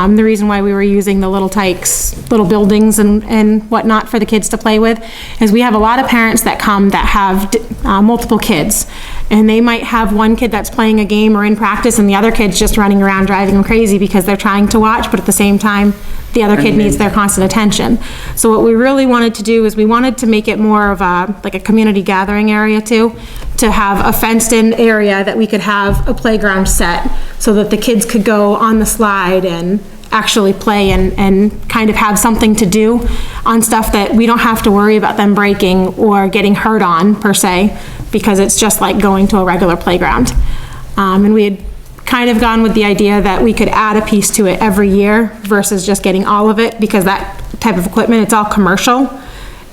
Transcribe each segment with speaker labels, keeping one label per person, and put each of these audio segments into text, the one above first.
Speaker 1: Um, the reason why we were using the little tykes, little buildings and, and whatnot for the kids to play with is we have a lot of parents that come that have, uh, multiple kids. And they might have one kid that's playing a game or in practice and the other kid's just running around driving them crazy because they're trying to watch, but at the same time, the other kid needs their constant attention. So what we really wanted to do is we wanted to make it more of a, like a community gathering area too, to have a fenced-in area that we could have a playground set so that the kids could go on the slide and actually play and, and kind of have something to do on stuff that we don't have to worry about them breaking or getting hurt on per se, because it's just like going to a regular playground. Um, and we had kind of gone with the idea that we could add a piece to it every year versus just getting all of it, because that type of equipment, it's all commercial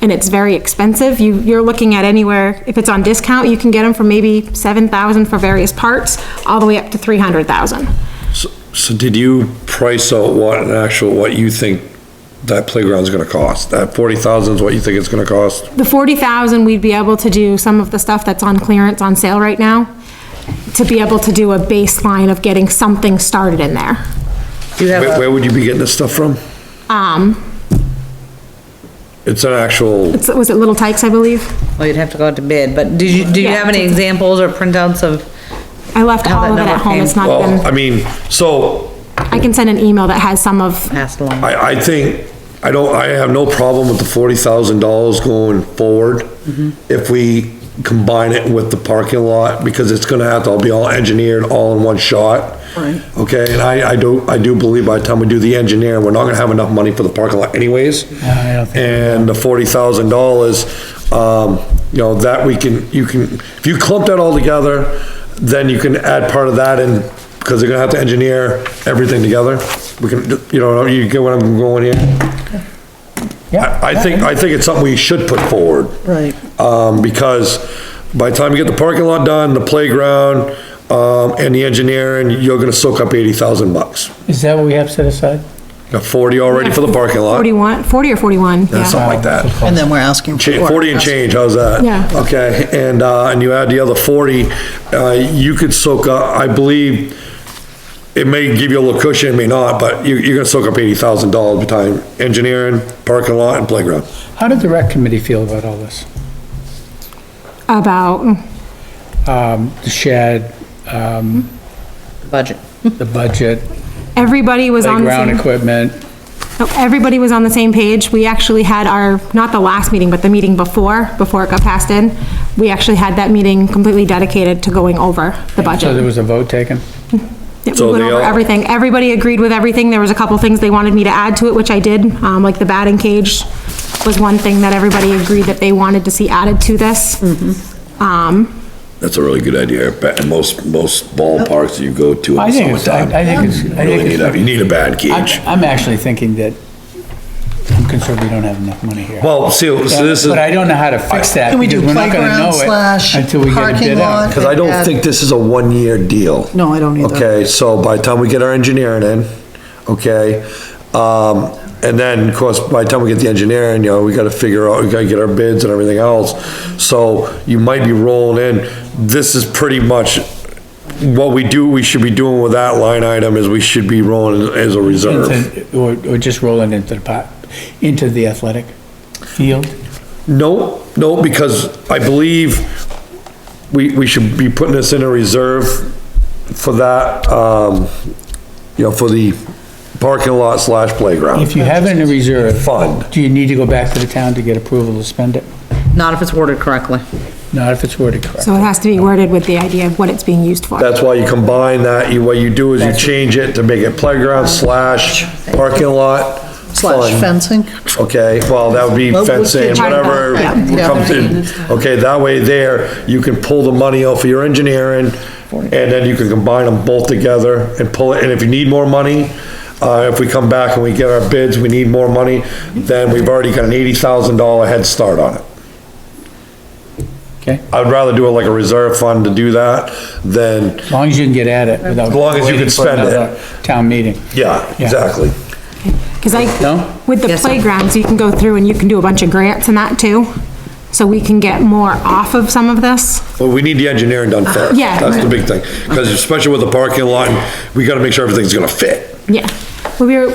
Speaker 1: and it's very expensive. You, you're looking at anywhere, if it's on discount, you can get them for maybe seven thousand for various parts, all the way up to three hundred thousand.
Speaker 2: So- So did you price out what, an actual, what you think that playground's gonna cost? That forty thousand is what you think it's gonna cost?
Speaker 1: The forty thousand, we'd be able to do some of the stuff that's on clearance, on sale right now, to be able to do a baseline of getting something started in there.
Speaker 3: Do you have,
Speaker 2: Where,
Speaker 3: a-
Speaker 2: where would you be getting this stuff from?
Speaker 1: Um,
Speaker 2: It's an actual,
Speaker 1: it's- was it Little Tykes, I believe?
Speaker 3: well, you'd have to go out to bid, but did you, do you
Speaker 1: Yeah.
Speaker 3: have any examples or printouts of,
Speaker 1: I left
Speaker 3: How that
Speaker 1: all of it
Speaker 3: number
Speaker 1: at home,
Speaker 3: came-
Speaker 1: it's not been.
Speaker 2: well, I mean, so
Speaker 1: I can send an email that has some of,
Speaker 3: passed along?
Speaker 2: I, I think, I don't, I have no problem with the forty thousand dollars going forward
Speaker 4: Mm-hmm.
Speaker 2: if we combine it with the parking lot, because it's gonna have to all be all engineered, all in one shot.
Speaker 3: Right.
Speaker 2: Okay, and I, I do, I do believe by the time we do the engineering, we're not gonna have enough money for the parking lot anyways.
Speaker 4: I don't think-
Speaker 2: And the forty thousand dollars, um, you know, that we can, you can, if you clump that all together, then you can add part of that in, because they're gonna have to engineer everything together. We can, you know, you get what I'm going here? I, I think, I think it's something we should put forward.
Speaker 3: Right.
Speaker 2: Um, because by the time you get the parking lot done, the playground, um, and the engineering, you're gonna soak up eighty thousand bucks.
Speaker 4: Is that what we have set aside?
Speaker 2: Got forty already for the parking lot,
Speaker 1: 41, 40 or 41,
Speaker 2: and
Speaker 1: yeah.
Speaker 2: something like that.
Speaker 5: And then we're asking.
Speaker 2: Cha-
Speaker 5: for-
Speaker 2: 40 and change, how's that?
Speaker 1: Yeah.
Speaker 2: Okay, and, uh, and you add the other 40, uh, you could soak up, I believe, it may give you a little cushion, it may not, but you, you're gonna soak up $80,000 between engineering, parking lot, and playground.
Speaker 4: How did the rec committee feel about all this?
Speaker 1: About,
Speaker 4: Um, the shed, um,
Speaker 3: Budget.
Speaker 4: the budget,
Speaker 1: everybody was on the
Speaker 4: playground
Speaker 1: same,
Speaker 4: equipment,
Speaker 1: no, everybody was on the same page. We actually had our, not the last meeting, but the meeting before, before it got passed in, we actually had that meeting completely dedicated to going over the
Speaker 4: so there
Speaker 1: budget.
Speaker 4: was a vote taken?
Speaker 1: Yeah, We
Speaker 2: So
Speaker 1: went
Speaker 2: they
Speaker 1: over
Speaker 2: all-
Speaker 1: everything. Everybody agreed with everything. There was a couple things they wanted me to add to it, which I did, um, like the batting cage was one thing that everybody agreed that they wanted to see added to this.
Speaker 3: Mm-hmm.
Speaker 1: Um,
Speaker 6: That's a really good idea. Ba- Most, most ballparks you go to
Speaker 4: I
Speaker 6: in the
Speaker 4: think it's, I
Speaker 6: summertime,
Speaker 4: I think it's, I
Speaker 6: really
Speaker 4: think
Speaker 6: need a, you
Speaker 4: it's.
Speaker 6: need a bad
Speaker 4: I'm,
Speaker 6: cage.
Speaker 4: I'm actually thinking that, I'm concerned we don't have enough money here.
Speaker 2: Well, see, so this is,
Speaker 4: But I don't know how to fix that.
Speaker 5: Can we do
Speaker 4: because we're not gonna
Speaker 5: playground
Speaker 4: know it
Speaker 5: slash
Speaker 4: until we get a
Speaker 5: parking
Speaker 4: bid out.
Speaker 5: lot?
Speaker 2: because I don't think this is a one-year deal.
Speaker 5: No, I don't either.
Speaker 2: Okay, so by the time we get our engineering in, okay, um, and then, of course, by the time we get the engineering, you know, we gotta figure out, we gotta get our bids and everything else. So you might be rolling in, this is pretty much, what we do, we should be doing with that line item is we should be rolling as a reserve.
Speaker 4: into- Or, or just rolling into the pot, into the athletic field?
Speaker 2: No, no, because I believe we, we should be putting this in a reserve for that, um, you know, for the parking lot slash playground.
Speaker 4: If you have it in a reserve.
Speaker 2: Fund.
Speaker 4: Do you need to go back to the town to get approval to spend it?
Speaker 3: Not if it's worded correctly.
Speaker 4: Not if it's worded correctly.
Speaker 1: so it has to be worded with the idea of what it's being used for.
Speaker 2: That's why you combine that, you, what you do is you change it to make it playground slash parking lot.
Speaker 5: Slash
Speaker 2: fund.
Speaker 5: fencing.
Speaker 2: Okay, well, that would be
Speaker 5: Well, we
Speaker 2: fencing,
Speaker 5: could
Speaker 1: try that,
Speaker 2: whatever
Speaker 5: yeah.
Speaker 2: comes in. Okay, that way there, you can pull the money out for your engineering, and then you can combine them both together and pull it, and if you need more money, uh, if we come back and we get our bids, we need more money, then we've already got an eighty thousand dollar head start on it.
Speaker 4: Okay,
Speaker 2: I'd rather do it like a reserve fund to do that than,
Speaker 4: as long as you can get at it without.
Speaker 2: As long as you
Speaker 4: waiting
Speaker 2: can
Speaker 4: for
Speaker 2: spend it.
Speaker 4: another Town meeting.
Speaker 2: yeah,
Speaker 4: Yeah.
Speaker 2: exactly.
Speaker 1: Because
Speaker 4: No?
Speaker 1: I, with the
Speaker 3: Yes, sir.
Speaker 1: playgrounds, you can go through and you can do a bunch of grants and that too. So we can get more off of some of this.
Speaker 2: Well, we need the engineering
Speaker 5: Uh,
Speaker 2: done first.
Speaker 1: Yeah.
Speaker 2: That's the big thing, because especially with the parking lot, we gotta make sure everything's gonna fit.
Speaker 1: Yeah. we were,